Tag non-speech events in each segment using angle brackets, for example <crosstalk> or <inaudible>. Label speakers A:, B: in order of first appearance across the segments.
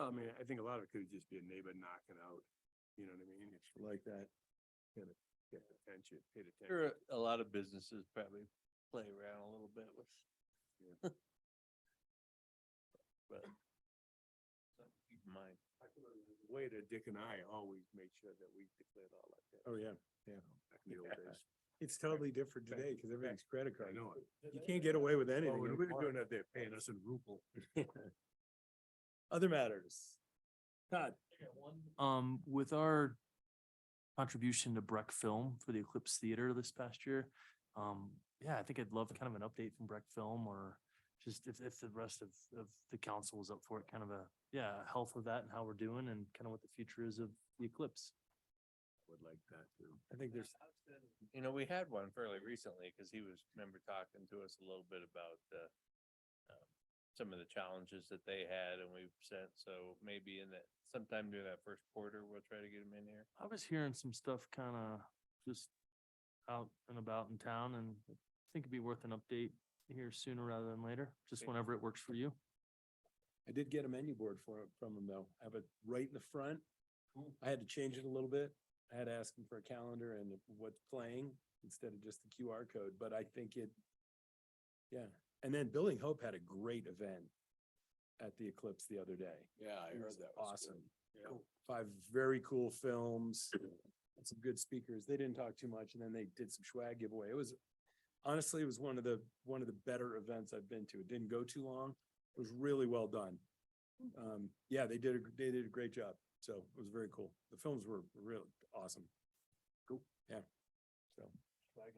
A: I mean, I think a lot of it could just be a neighbor knocking out, you know what I mean? It's like that. Kind of get attention, paid
B: There
A: attention.
B: are a lot of businesses probably play around a little bit with. <laughs> But. something to Keep in mind.
A: Way that Dick and I always made sure that we declared all like that.
C: Oh, yeah, yeah.
A: Back in the old days.
C: It's totally different today because everything's credit
A: I
C: card.
A: know it.
C: You can't get away with
A: Oh,
C: anything.
A: when we were
C: anymore.
A: doing that, they're paying us in ruble.
C: <laughs> Other matters. Todd,
D: Um, with our contribution to Breck Film for the Eclipse Theater this past year, um, yeah, I think I'd love kind of an update from Breck Film or just if, if the rest of, of the council is up for it, kind of a, yeah, health of that and how we're doing and kind of what the future is of the Eclipse.
A: Would like that too.
C: I think there's,
B: You know, we had one fairly recently because he was, remember talking to us a little bit about the um, some of the challenges that they had and we've sent, so maybe in that sometime during that first quarter, we'll try to get him in here.
D: I was hearing some stuff kind of just out and about in town and I think it'd be worth an update here sooner rather than later, just
B: Okay.
D: whenever it works for you.
C: I did get a menu board for, from him though. I have it right in the front. I had to change it a little bit. I had to ask him for a calendar and what's playing instead of just the QR code, but I think it, yeah. And then Building Hope had a great event at the Eclipse the other day.
A: Yeah, I
C: It
A: heard
C: was
A: that. was good.
C: Awesome.
A: Yeah.
C: Cool. Five very cool films, and some good speakers. They didn't talk too much and then they did some swag giveaway. It was honestly, it was one of the, one of the better events I've been to. It didn't go too long. It was really well done. Um, yeah, they did, a they did a great job. So it was very cool. The films were real awesome. Cool. Yeah. So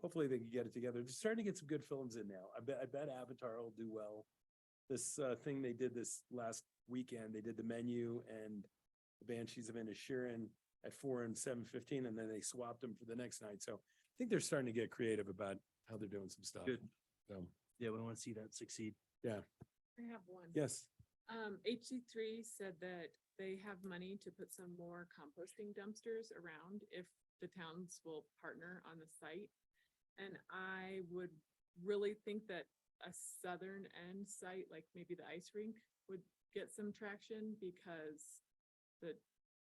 C: hopefully they can get it together. They're starting to get some good films in now. I bet, I bet Avatar will do well. This, uh, thing they did this last weekend, they did the menu and the Banshees of Inisherin at four and seven fifteen, and then they swapped them for the next night. So I think they're starting to get creative about how they're doing some stuff.
D: Good.
C: So,
D: Yeah, we want to see that succeed.
E: I have one.
C: yes,
E: Um, HC three said that they have money to put some more composting dumpsters around if the towns will partner on the site. And I would really think that a southern end site, like maybe the ice rink, would get some traction because the,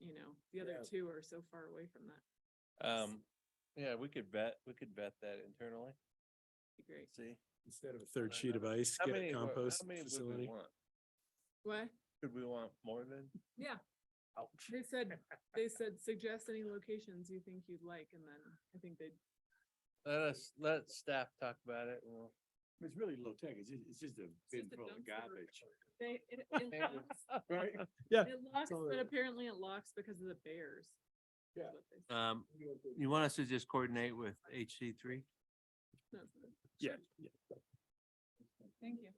E: you know, the other
C: Yeah.
E: two are so far away from that.
B: Um, yeah, we could vet, we could vet that internally,
E: Be great.
B: see.
C: instead of a third sheet of ice,
B: How
C: get a
B: many, wa-
C: compost
B: how many would we
C: facility.
B: want?
E: What?
B: Could we want more than?
E: Yeah,
B: Ouch.
E: they said, they said suggest any locations you think you'd like and then I think they'd
B: Let us, let staff talk about it. and We'll
A: It's really low tech. It's just, it's just a bin
E: just a
A: full of
E: dumpster.
A: garbage.
E: They, it, it
B: Bears.
E: locks,
C: Right?
E: it locks,
C: all
E: but
C: right.
E: apparently it locks because of the bears. is
C: Yeah.
E: what they said.
B: Um, you want us to just coordinate with HC three?
E: That's what it-
C: Yeah.
E: Thank you.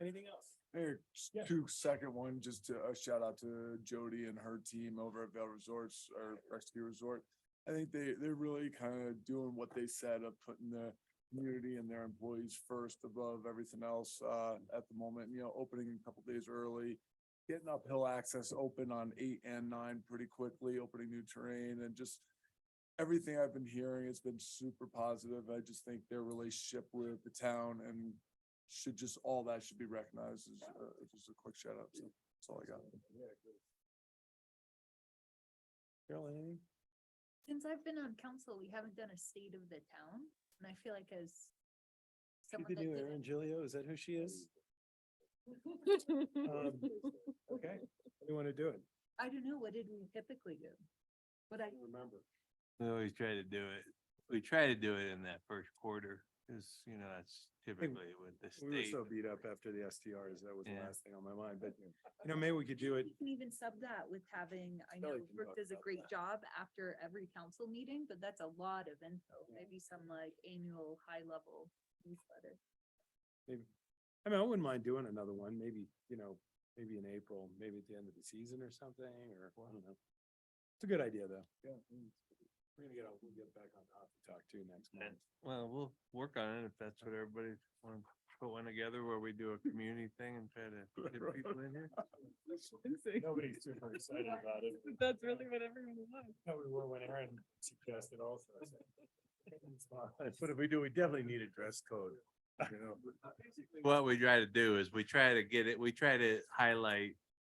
C: Anything else?
F: Mayor,
C: Yeah.
F: two second one, just to- a shout out to Jody and her team over at Vail Resorts or Rescue Resort. I think they, they're really kind of doing what they said of putting the community and their employees first above everything else, uh, at the moment, you know, opening a couple days early. Getting uphill access open on eight and nine pretty quickly, opening new terrain and just everything I've been hearing has been super positive. I just think their relationship with the town and should just, all that should be recognized as, uh, just a quick shout out. So That's all I got.
C: Carol, anything?
G: Since I've been on council, we haven't done a state of the town, and I feel like as
C: She's
G: someone
C: the
G: that
C: new
G: did
C: Erin Gilio, is that who she
E: <laughs>
C: is? Um, Okay, you want to do it?
G: I don't know, what did we typically do? But I,
C: Remember.
B: We always try to do it. We try to do it in that first quarter, because, you know, that's typically what the
C: We were
B: state.
C: so beat up after the STRs. That was the
B: Yeah.
C: last thing on my mind, but you know, maybe we could do it.
G: you can even sub that with having, I know
A: Kelly can talk
G: Brooke does a
A: about
G: great
A: that.
G: job after every council meeting, but that's a lot of info. Maybe some like annual high-level newsletter.
C: Maybe, I mean, I wouldn't mind doing another one, maybe, you know, maybe in April, maybe at the end of the season or something, or I don't know. It's a good idea, though. Yeah. We're gonna get, on- we'll get back on top to talk to next
B: Yeah.
C: month.
B: Well, we'll work on it if that's what everybody wants to put one together where we do a community thing and try to <laughs> get people in here.
C: Nobody's super excited about it.
E: <laughs> That's really what everyone wants.
C: No, we were when Aaron suggested also.
A: <laughs> But if we do, we definitely need a dress code, you know?
B: What we try to do is we try to get it, we try to highlight